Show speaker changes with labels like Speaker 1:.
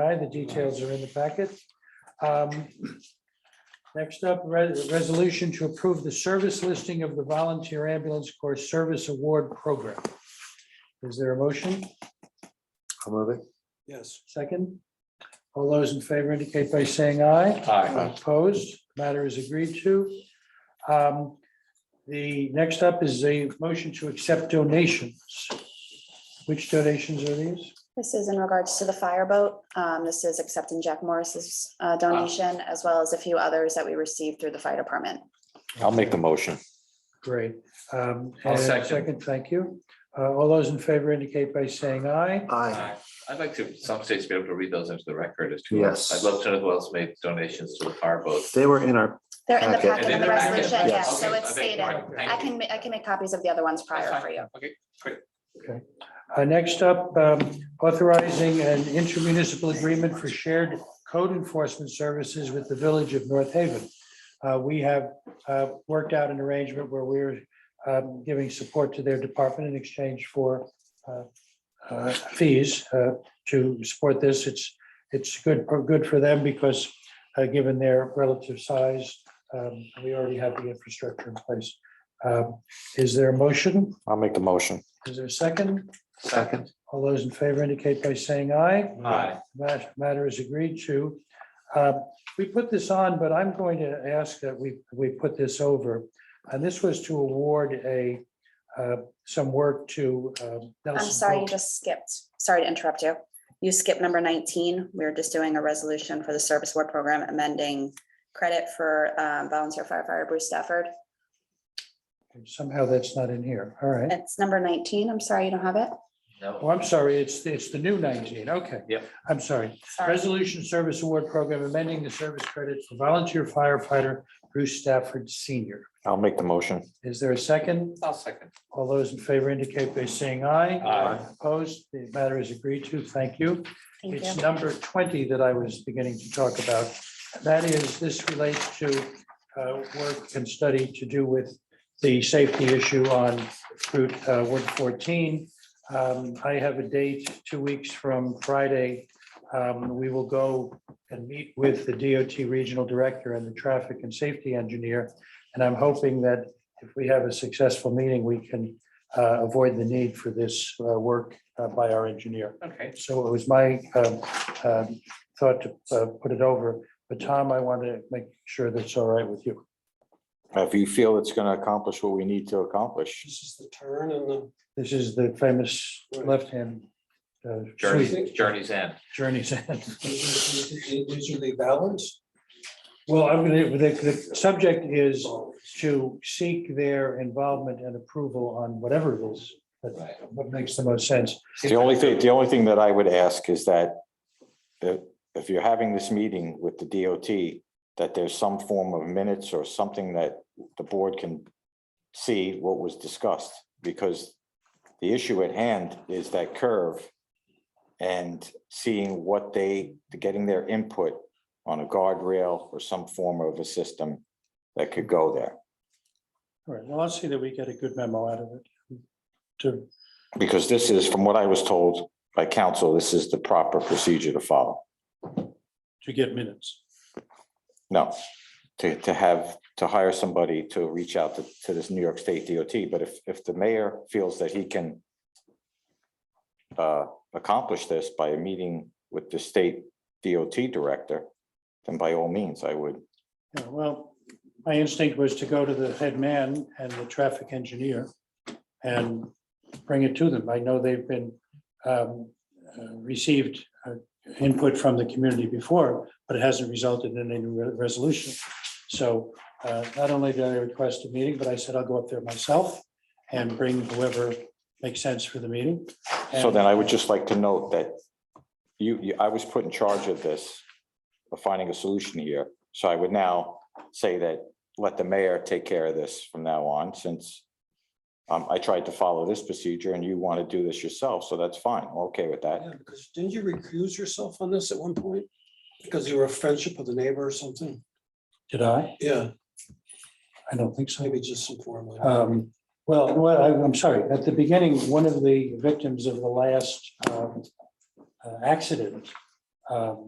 Speaker 1: I. The details are in the packet. Um, Next up, re- resolution to approve the service listing of the Volunteer Ambulance Corps Service Award Program. Is there a motion?
Speaker 2: I'll move it.
Speaker 1: Yes. Second? All those in favor indicate by saying aye.
Speaker 2: Aye.
Speaker 1: Opposed, matter is agreed to. Um, The next up is a motion to accept donations. Which donations are these?
Speaker 3: This is in regards to the fireboat. Um, this is accepting Jack Morris's uh, donation as well as a few others that we received through the fire department.
Speaker 2: I'll make the motion.
Speaker 1: Great. Um,
Speaker 4: I'll
Speaker 1: and
Speaker 4: second.
Speaker 1: Second, thank you. Uh, All those in favor indicate by saying aye.
Speaker 2: Aye.
Speaker 4: Aye. I'd like to, some states be able to read those into the record as to.
Speaker 2: Yes.
Speaker 4: I'd love to know who else made donations to the fireboat.
Speaker 2: They were in our,
Speaker 3: They're in the
Speaker 2: Okay.
Speaker 3: packet of
Speaker 4: And in
Speaker 3: the
Speaker 4: the packet,
Speaker 3: resolution,
Speaker 2: yes.
Speaker 3: yes, so
Speaker 4: Okay,
Speaker 3: it's
Speaker 4: I beg
Speaker 3: stated.
Speaker 4: your pardon. Thank
Speaker 3: I
Speaker 4: you.
Speaker 3: can, ma- I can make copies of the other ones prior for you.
Speaker 4: Okay,
Speaker 1: Uh, Next up, um, authorizing an intermunicipal agreement for shared code enforcement services with the Village of North Haven. Uh, We have uh, worked out an arrangement where we're um, giving support to their department in exchange for uh, uh, fees uh, to support this. It's, it's good, good for them because uh, given their relative size, um, we already have the infrastructure in place. Um, Is there a motion?
Speaker 2: I'll make the motion.
Speaker 1: Is there a second?
Speaker 4: second.
Speaker 1: All those in favor indicate by saying aye.
Speaker 4: Aye.
Speaker 1: That matter is agreed to. Uh, We put this on, but I'm going to ask that we, we put this over. And this was to award a, uh, some work to um,
Speaker 3: I'm
Speaker 1: Nelson.
Speaker 3: sorry, you
Speaker 1: Pope.
Speaker 3: just skipped. Sorry to interrupt you. You skipped number nineteen. We were just doing a resolution for the service award program amending credit for um, volunteer firefighter Bruce Stafford.
Speaker 1: Somehow that's not in here. All right.
Speaker 3: It's number nineteen. I'm sorry you don't have it.
Speaker 4: No.
Speaker 1: Oh, I'm sorry, it's, it's the new 19. Okay.
Speaker 4: Yep.
Speaker 1: I'm sorry.
Speaker 3: Sorry.
Speaker 1: Resolution Service Award Program amending the service credit for volunteer firefighter Bruce Stafford Senior.
Speaker 2: I'll make the motion.
Speaker 1: Is there a second?
Speaker 4: I'll second.
Speaker 1: All those in favor indicate by saying aye.
Speaker 4: Aye.
Speaker 1: Opposed, the matter is agreed to. Thank you.
Speaker 3: Thank you.
Speaker 1: It's number 20 that I was beginning to talk about. That is, this relates to uh, work and study to do with the safety issue on Route uh, 114. Um, I have a date, two weeks from Friday. Um, We will go and meet with the DOT Regional Director and the Traffic and Safety Engineer. And I'm hoping that if we have a successful meeting, we can uh, avoid the need for this uh, work uh, by our engineer.
Speaker 4: Okay.
Speaker 1: So it was my um, um, thought to uh, put it over, but Tom, I want to make sure that's all right with you.
Speaker 2: If you feel it's going to accomplish what we need to accomplish.
Speaker 5: This is the turn and the,
Speaker 1: This is the famous left-hand uh, sweep,
Speaker 4: Journey, journey's end.
Speaker 1: journey's end.
Speaker 5: these are- these are the balance.
Speaker 1: Well, I'm going to, the, the subject is to seek their involvement and approval on whatever it is, that
Speaker 4: Right.
Speaker 1: what makes the most sense.
Speaker 2: The only thing, the only thing that I would ask is that if, if you're having this meeting with the DOT, that there's some form of minutes or something that the board can see what was discussed, because the issue at hand is that curve and seeing what they, getting their input on a guardrail or some form of a system that could go there.
Speaker 1: All right, well, I'll see that we get a good memo out of it. To,
Speaker 2: Because this is, from what I was told by council, this is the proper procedure to follow.
Speaker 1: to get minutes.
Speaker 2: No, to, to have, to hire somebody to reach out to, to this New York State DOT, but if, if the mayor feels that he can uh, accomplish this by a meeting with the state DOT director, then by all means, I would,
Speaker 1: Yeah, Well, my instinct was to go to the head man and the traffic engineer and bring it to them. I know they've been um, uh, received uh, input from the community before, but it hasn't resulted in any re- resolution. So uh, not only did I request a meeting, but I said I'll go up there myself and bring whoever makes sense for the meeting.
Speaker 2: so then I would just like to note that you, you, I was put in charge of this, of finding a solution here, so I would now say that let the mayor take care of this from now on, since um, I tried to follow this procedure and you want to do this yourself, so that's fine, I'm okay with that.
Speaker 5: Yeah, because didn't you recuse yourself on this at one point? Because you were a friendship with a neighbor or something?
Speaker 1: uh, Did I?
Speaker 5: Yeah,
Speaker 1: I don't think so.
Speaker 5: maybe just informally.
Speaker 1: Um, Well, well, I- I'm sorry, at the beginning, one of the victims of the last um, uh, accident um, um,